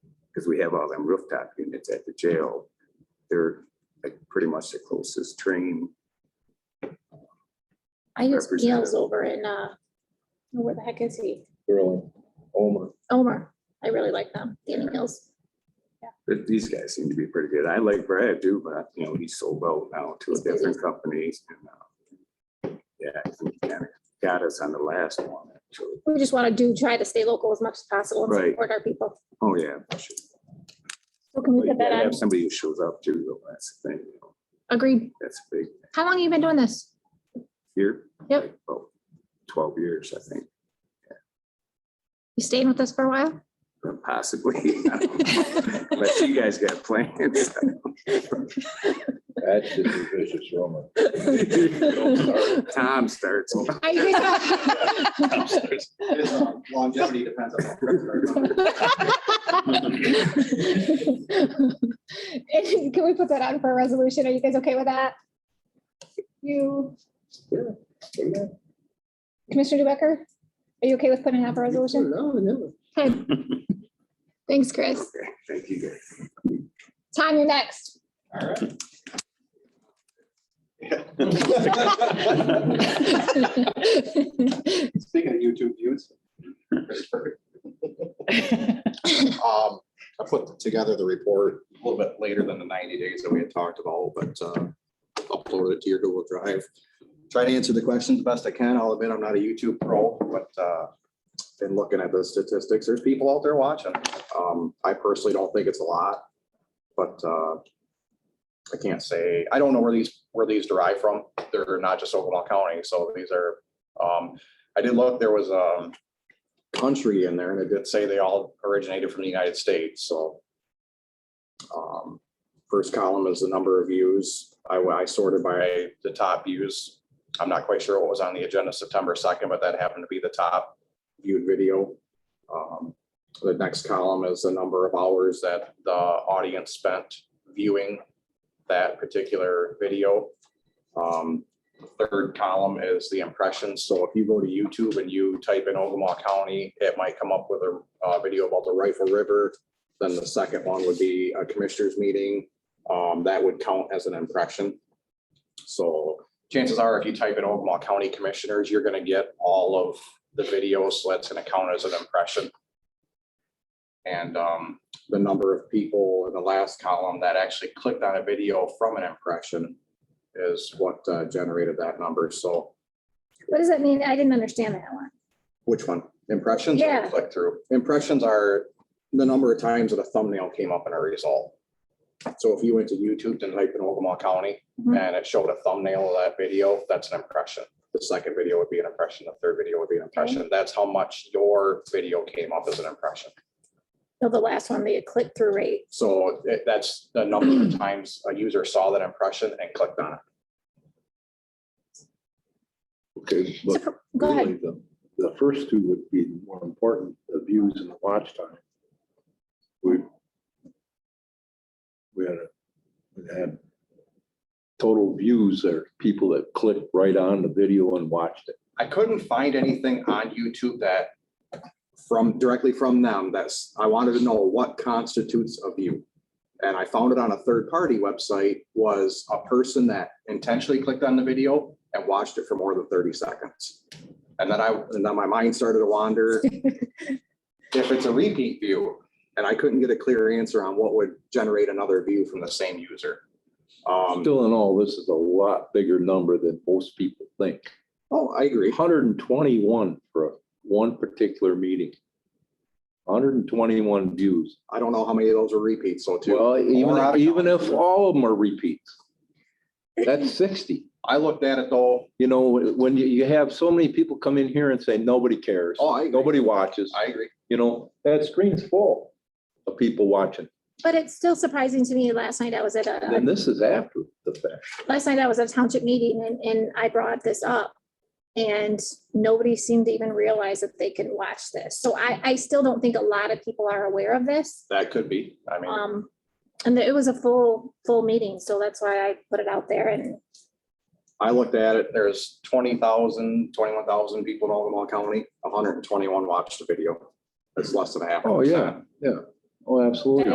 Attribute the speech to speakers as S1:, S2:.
S1: because we have all them rooftop units at the jail. They're like pretty much the closest train.
S2: I use Gales
S1: Representative.
S2: over in, uh, oh, where the heck is he?
S3: Really, Omer.
S2: Omer. I really like them, Danny Gales.
S1: But these guys seem to be pretty good. I like Brad too, but you know, he's sold out now to a
S2: He's busy.
S1: different company. and, uh, Yeah, I think he kinda got us on the last one, actually.
S2: We just want to do, try to stay local as much as possible and
S1: Right.
S2: support our people.
S1: Oh, yeah. for sure.
S2: So can
S1: But
S2: we
S1: you
S2: get that
S1: gotta
S2: on?
S1: have somebody who shows up too, though. That's the thing. you know.
S2: Agreed.
S1: That's a big
S2: How long have you been doing this?
S1: here.
S2: Yep.
S1: like, About twelve years, I think,
S2: You staying with us for a while?
S1: possibly. Unless you guys got plans.
S3: That's just a vicious rumor.
S1: Tom starts.
S2: Are you guys-
S4: His, uh, Longevity depends on.
S2: And Can we put that on for a resolution? Are you guys okay with that? You, Commissioner Dubecker? Are you okay with putting it on for a resolution? Okay. Thanks, Chris.
S1: Okay, Thank you guys.
S2: Tom, you're next.
S4: All right. Speaking of YouTube views. that's perfect. Um, I put together the report a little bit later than the ninety days that we had talked about, but uh, uploaded it to your Google Drive. Try to answer the questions the best I can. I'll admit I'm not a YouTube pro, but uh, been looking at the statistics. There's people out there watching. Um, I personally don't think it's a lot, but uh, I can't say, I don't know where these, where these derive from. They're not just Oklahoma County, so these are, um, I did look, there was um country in there and it did say they all originated from the United States, so. Um, first column is the number of views. I, I sorted by the top views. I'm not quite sure what was on the agenda September second, but that happened to be the top viewed video. Um, the next column is the number of hours that the audience spent viewing that particular video. Um, Third column is the impressions. So if you go to YouTube and you type in Ogama County, it might come up with a uh, video about the Rifle River. Then the second one would be a commissioners meeting. Um, That would count as an impression. So chances are, if you type in Ogama County Commissioners, you're going to get all of the videos. So that's going to count as an impression. And um, the number of people in the last column that actually clicked on a video from an impression is what uh, generated that number. So
S2: What does that mean? I didn't understand that one.
S4: which one? Impressions
S2: Yeah.
S4: or click through? Impressions are the number of times that a thumbnail came up in a result. So if you went to YouTube and typed in Ogama County
S2: Mhm.
S4: and it showed a thumbnail of that video, that's an impression. The second video would be an impression, the third video would be an impression. That's how much your video came up as an impression.
S2: So the last one, the click-through rate.
S4: So it- that's the number of times a user saw that impression and clicked on it.
S5: Okay,
S2: So
S5: but
S2: for- Go ahead.
S5: really the, the first two would be the more important, the views and the watch time. We, we had, a we had total views are people that clicked right on the video and watched it.
S4: I couldn't find anything on YouTube that from, directly from them, that's, I wanted to know what constitutes a view. And I found it on a third-party website, was a person that intentionally clicked on the video and watched it for more than thirty seconds. And then I, and then my mind started to wander. If it's a repeat view, and I couldn't get a clear answer on what would generate another view from the same user. Um,
S5: Still in all, this is a lot bigger number than most people think.
S4: oh, I agree.
S5: hundred and twenty-one for one particular meeting. Hundred and twenty-one views.
S4: I don't know how many of those are repeats, so too.
S5: Well,
S4: Or out
S5: even,
S4: of
S5: even
S4: town.
S5: if all of them are repeats, that's sixty.
S4: I looked at it though,
S5: You know, when you, you have so many people come in here and say, nobody cares,
S4: oh, I,
S5: nobody watches,
S4: I agree.
S5: you know, that screen's full of people watching.
S2: But it's still surprising to me. Last night I was at a,
S5: And this is after the fact.
S2: last night I was at a township meeting and, and I brought this up. And nobody seemed to even realize that they could watch this. So I, I still don't think a lot of people are aware of this.
S4: That could be. I mean,
S2: Um, and it was a full, full meeting. So that's why I put it out there and
S4: I looked at it, there's 20,000, 21,000 people in Ogama County, hundred and twenty-one watched the video. That's less than half.
S5: Oh, yeah, yeah. Oh, absolutely.